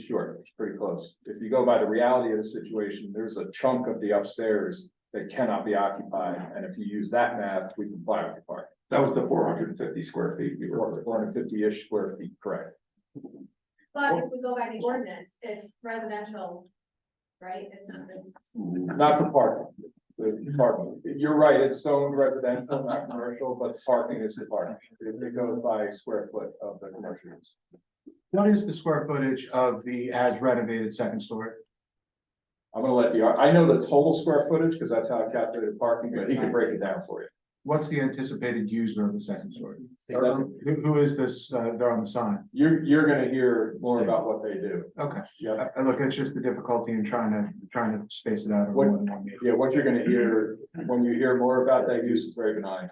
short, it's pretty close. If you go by the reality of the situation, there's a chunk of the upstairs that cannot be occupied, and if you use that math, we comply with the part. That was the four hundred and fifty square feet we were, Four hundred fifty-ish square feet, correct? But if we go by the ordinance, it's residential, right? It's not, the- Not for parking. The parking, you're right, it's zoned residential, not commercial, but parking is the parking. It it goes by square foot of the commercial use. What is the square footage of the as renovated second story? I'm gonna let the, ar- I know the total square footage, because that's how I calculated parking, but he can break it down for you. What's the anticipated user of the second story? Or Or Who, who is this, uh, they're on the sign? You're, you're gonna hear more about what they do. Okay, Yeah, I, I Uh, look, it's just the difficulty in trying to, trying to space it out. over What- more than one meeting. yeah, what you're gonna hear, when you hear more about that use, it's very benign.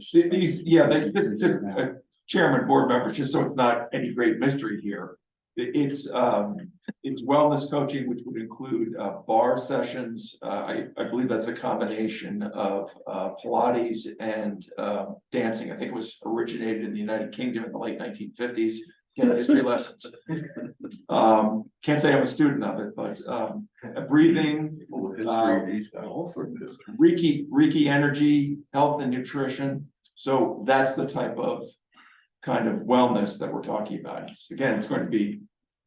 Th- these, yeah, they, they- they- uh, chairman, board members, just so it's not any great mystery here. I- it's, um, it's wellness coaching, which would include, uh, bar sessions. Uh, I, I believe that's a combination of, uh, Pilates and, um dancing. I think it was originated in the United Kingdom in the late nineteen fifties. Get history lessons. Um, can't say I'm a student of it, but, um, breathing, history, Reiki, Reiki energy, health and nutrition. So that's the type of kind of wellness that we're talking about. It's, again, it's going to be,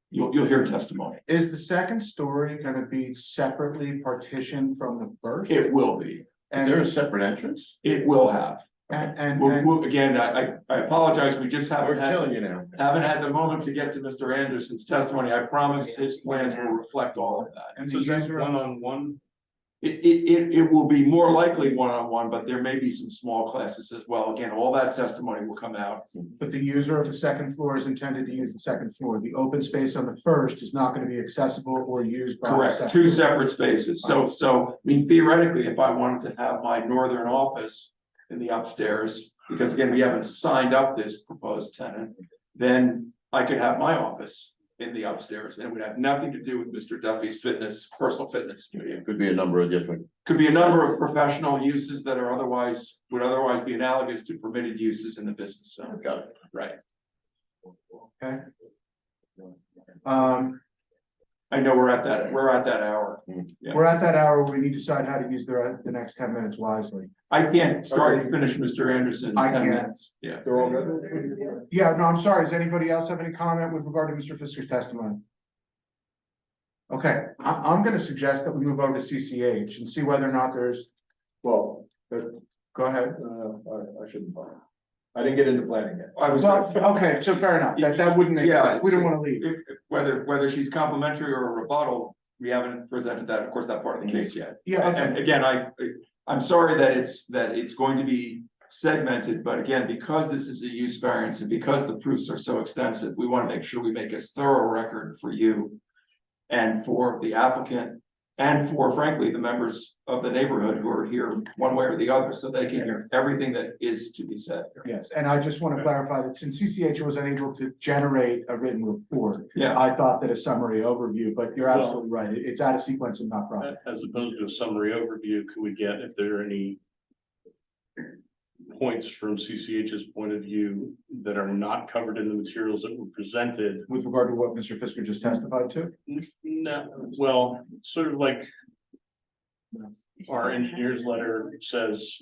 you'll, you'll hear testimony. Is the second story gonna be separately partitioned from the first? It will be, And, a separate entrance? it will have. and, and, We'll, and we'll- again, I, I, I apologize, we just haven't had, you now. haven't had the moment to get to Mr. Anderson's testimony. I promise his plans will reflect all of that. and the user on the- one? It, it, it, it will be more likely one-on-one, but there may be some small classes as well. Again, all that testimony will come out. but the user of the second floor is intended to use the second floor. The open space on the first is not gonna be accessible or used by. the Correct, second two floor. separate spaces, so, so, I mean theoretically, if I wanted to have my northern office in the upstairs, because again, we haven't signed up this proposed tenant, then I could have my office in the upstairs, and it would have nothing to do with Mr. Duffy's fitness, personal fitness studio. Could be a number of different. Could be a number of professional uses that are otherwise, would otherwise be analogous to permitted uses in the business zone. Got it. Right, Um, I know we're at that, we're at that hour, Yeah. We're at that hour, where we need to decide how to use the, the next ten minutes wisely. I can't start and finish Mr. Anderson. in I 10 can't. minutes. Yeah. They're all good? Yeah, no, I'm sorry, does anybody else have any comment with regard to Mr. Fisker's testimony? Okay, I, I'm gonna suggest that we move over to CCH and see whether or not there's, Well, but, go ahead. uh, I, I shouldn't. bother. I didn't get into planning yet. I was. Well, okay, so fair enough, that, that wouldn't make Yeah, sense, we don't wanna leave. if, if- whether, whether she's complimentary or a rebuttal, we haven't presented that, of course, that part of the case yet. Yeah, okay, And again, I, I'm sorry that it's, that it's going to be segmented, but again, because this is a use variance and because the proofs are so extensive, we want to make sure we make as thorough record for you and for the applicant and for frankly, the members of the neighborhood who are here one way or the other, so they can hear everything that is to be said. yes, and I just wanna clarify that since CCH was unable to generate a written report, Yeah, I thought that a summary overview, but you're absolutely right, it- it's out of sequence and not proper. As opposed to a summary overview, could we get if there are any points from CCH's point of view that are not covered in the materials that were presented? With regard to what Mr. Fisker just testified to? No, well, sort of like our engineer's letter says,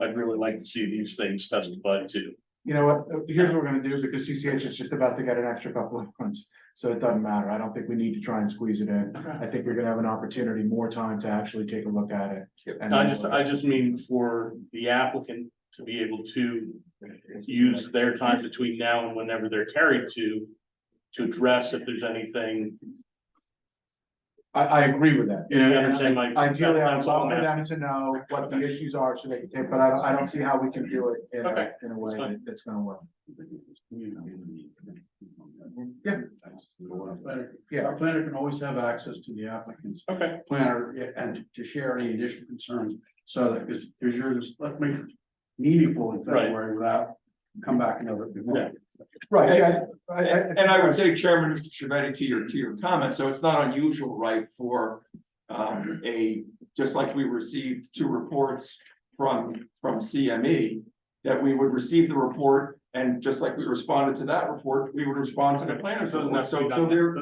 I'd really like to see these things testified to. You know what, uh, here's what we're gonna do, because CCH is just about to get an extra couple of months, so it doesn't matter, I don't think we need to try and squeeze it in. I think we're gonna have an opportunity, more time to actually take a look at it. and- I just, I just mean for the applicant to be able to use their time between now and whenever they're carried to. To address if there's anything, I, I agree with that. You understand my- Ideally, I would that's all love I'm for them to know what the issues are, so they can take, but I don't, I don't see how we can do it in a, Okay. in a way That's fine. that- that's gonna work. Yeah. Yeah. Our planner can always have access to the applicant's okay, planner and to share any additional concerns. So that, because there's yours, let's make it meaningful in Right. February without come back another. Yeah. Right, yeah, I, I, And and I would say, Chairman, Mr. Shavetti, to your, to your comment, so it's not unusual, right, for um, a, just like we E, received two reports from, from CME, that we would receive the report And just like we responded to that report, we would respond to the planners. Doesn't have report. So, to be done so there,